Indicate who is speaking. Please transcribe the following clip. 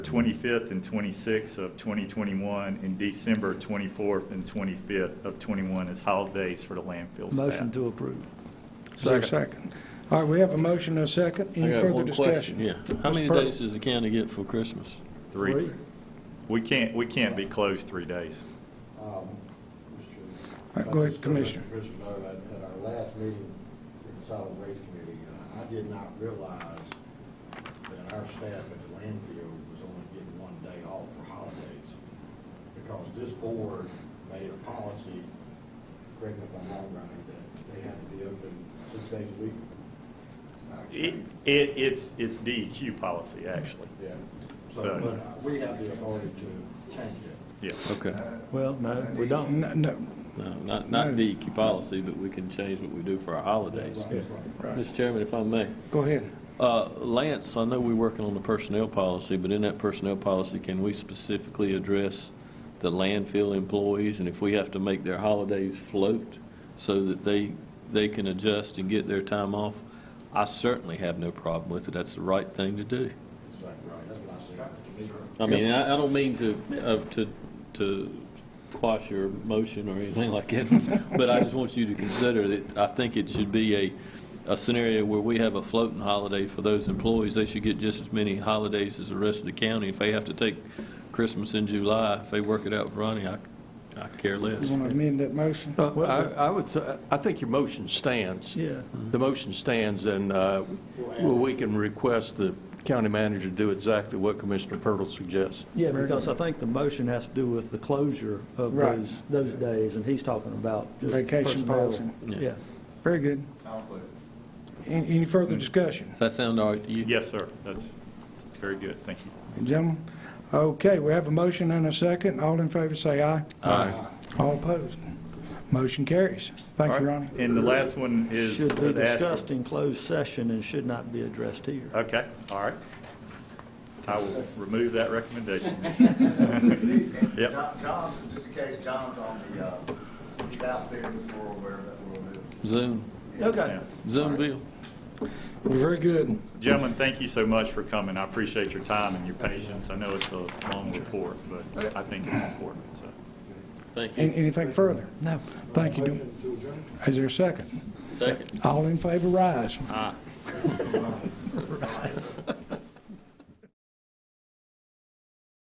Speaker 1: 25th and 26th of 2021, and December 24th and 25th of 21 as holidays for the landfill staff.
Speaker 2: Motion to approve.
Speaker 3: Is there a second? All right, we have a motion and a second. Any further discussion?
Speaker 4: Yeah. How
Speaker 3: Mr.
Speaker 4: many
Speaker 3: Purdy.
Speaker 4: days does the county get for Christmas?
Speaker 1: Three. We can't, we can't be closed three days.
Speaker 3: All right, go ahead, Commissioner.
Speaker 5: Commissioner Byrd, at at our last meeting with the Solid Waste Committee, uh, I did not realize that our staff at the landfill was only getting one day off for holidays. Because this board made a policy, correct me if I'm wrong, Ronnie, that they had to be open six days a week.
Speaker 1: It, it- it's, it's DEQ policy, actually.
Speaker 5: Yeah, so,
Speaker 1: Uh,
Speaker 5: but uh, we have the authority to change that.
Speaker 1: Yeah.
Speaker 4: Okay.
Speaker 2: Well, no, we don't.
Speaker 3: No, no,
Speaker 4: No, not, not
Speaker 3: No.
Speaker 4: DEQ policy, but we can change what we do for our holidays.
Speaker 5: Right,
Speaker 3: right.
Speaker 5: right.
Speaker 4: Mr. Chairman, if I may,
Speaker 3: Go ahead.
Speaker 4: uh, Lance, I know we're working on the personnel policy, but in that personnel policy, can we specifically address the landfill employees and if we have to make their holidays float so that they, they can adjust and get their time off? I certainly have no problem with it. That's the right thing to do.
Speaker 5: Exactly right, that's what I said.
Speaker 4: I mean, I, I don't mean to, uh, to, to quash your motion or anything like that, but I just want you to consider that I think it should be a, a scenario where we have a floating holiday for those employees. They should get just as many holidays as the rest of the county. If they have to take Christmas in July, if they work it out with Ronnie, I, I care less.
Speaker 3: You want to amend that motion?
Speaker 6: Uh, I I would, say- I think your motion stands.
Speaker 2: Yeah.
Speaker 6: The motion stands, and uh, well, we can request the county manager to do exactly what Commissioner Purtle suggests.
Speaker 2: Yeah, because I think the motion has to do with the closure of
Speaker 3: Right.
Speaker 2: those, those days, and he's talking about just
Speaker 3: Vacation
Speaker 2: personnel.
Speaker 3: policy.
Speaker 2: Yeah.
Speaker 3: Very good. Any any further discussion?
Speaker 4: Does that sound all right to you?
Speaker 1: Yes, sir. That's very good. Thank you.
Speaker 3: Gentlemen, okay, we have a motion and a second. All in favor, say aye.
Speaker 4: Aye.
Speaker 3: All opposed. Motion carries. Thank you, Ronnie.
Speaker 1: And the last one is.
Speaker 2: Should be
Speaker 1: that Ashford-
Speaker 2: discussed in closed session and should not be addressed here.
Speaker 1: Okay, all right. I will remove that recommendation. Yep.
Speaker 7: John- John's, just in case John's on the, uh, he's out there in this world wherever that world is.
Speaker 4: Zoom,
Speaker 2: Okay.
Speaker 4: Zoom bill.
Speaker 3: Very good.
Speaker 1: Gentlemen, thank you so much for coming. I appreciate your time and your patience. I know it's a long report, but I think it's important, so.
Speaker 4: Thank
Speaker 3: An-
Speaker 4: you.
Speaker 3: Anything further?
Speaker 2: No.
Speaker 3: Thank you. Is there a second?
Speaker 4: Second.
Speaker 3: All in favor, rise.
Speaker 4: Aye.